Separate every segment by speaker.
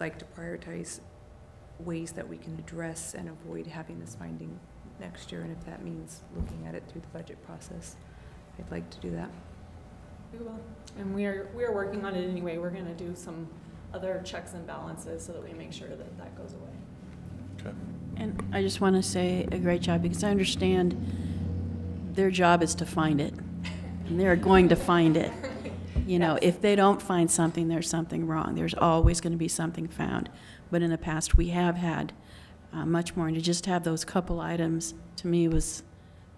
Speaker 1: like to prioritize ways that we can address and avoid having this finding next year, and if that means looking at it through the budget process, I'd like to do that.
Speaker 2: We will, and we are, we are working on it anyway. We're gonna do some other checks and balances so that we make sure that that goes away.
Speaker 3: And I just want to say a great job, because I understand their job is to find it, and they're going to find it. You know, if they don't find something, there's something wrong. There's always going to be something found. But in the past, we have had uh, much more, and to just have those couple items, to me, was,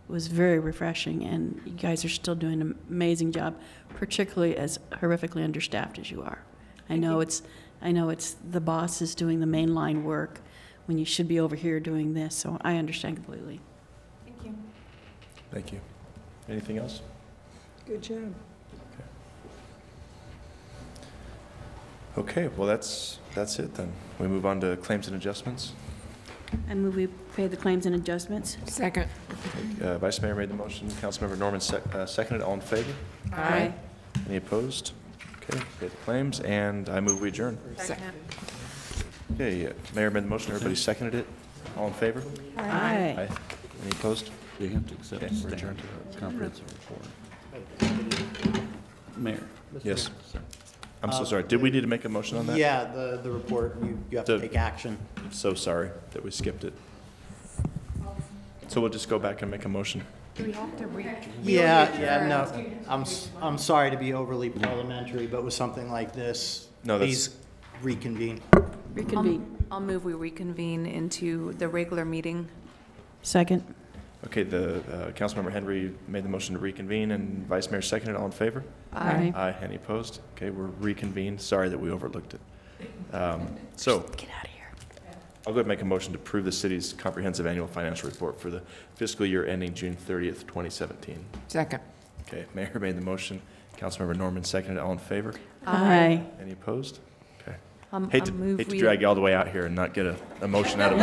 Speaker 3: was very refreshing, and you guys are still doing an amazing job, particularly as horrifically understaffed as you are. I know it's, I know it's, the boss is doing the mainline work when you should be over here doing this, so I understand completely.
Speaker 2: Thank you.
Speaker 4: Thank you. Anything else?
Speaker 5: Good job.
Speaker 4: Okay, well, that's, that's it then. We move on to claims and adjustments.
Speaker 3: I move we pay the claims and adjustments.
Speaker 5: Second.
Speaker 4: Uh, Vice Mayor made the motion, Councilmember Norman sec- uh, seconded, all in favor?
Speaker 5: Aye.
Speaker 4: Any opposed? Okay, pay the claims, and I move we adjourn.
Speaker 5: Second.
Speaker 4: Okay, uh, Mayor made the motion, everybody seconded it, all in favor?
Speaker 3: Aye.
Speaker 4: Any opposed?
Speaker 6: You have to accept
Speaker 4: Okay,
Speaker 6: the
Speaker 4: we're adjourned.
Speaker 6: staff comprehensive report. Mayor?
Speaker 4: Yes. Uh, I'm so sorry, did we need to make a motion on that?
Speaker 7: Yeah, the, the report, you, you have to
Speaker 4: The-
Speaker 7: take action.
Speaker 4: I'm So sorry that we skipped it. So we'll just go back and make a motion.
Speaker 1: Do we have to re?
Speaker 7: Yeah, yeah, no, I'm, s- I'm sorry to be overly parliamentary, but with something like this,
Speaker 4: No, that's-
Speaker 7: please reconvene.
Speaker 3: Reconvene.
Speaker 1: I'll move we reconvene into the regular meeting.
Speaker 3: Second.
Speaker 4: Okay, the, uh, Councilmember Henry made the motion to reconvene, and Vice Mayor seconded, all in favor?
Speaker 3: Aye.
Speaker 4: Aye, any opposed? Okay, we're reconvened. Sorry that we overlooked it. Um, So
Speaker 3: Get out of here.
Speaker 4: I'll go ahead and make a motion to approve the city's comprehensive annual financial report for the fiscal year ending June 30th, 2017.
Speaker 5: Second.
Speaker 4: Okay, Mayor made the motion. Councilmember Norman seconded. All in favor?
Speaker 3: Aye.
Speaker 4: Any opposed? Okay.
Speaker 1: Um,
Speaker 4: Hate
Speaker 1: I'll
Speaker 4: to,
Speaker 1: move
Speaker 4: hate to
Speaker 1: we-
Speaker 4: drag you all the way out here and not get a, a motion out of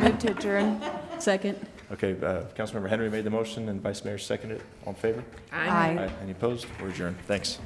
Speaker 4: it.
Speaker 1: Move to adjourn.
Speaker 3: Second.
Speaker 4: Okay, uh, Councilmember Henry made the motion and Vice Mayor seconded. it. All in favor?
Speaker 1: Aye.
Speaker 4: Any opposed? We're adjourned. Thanks.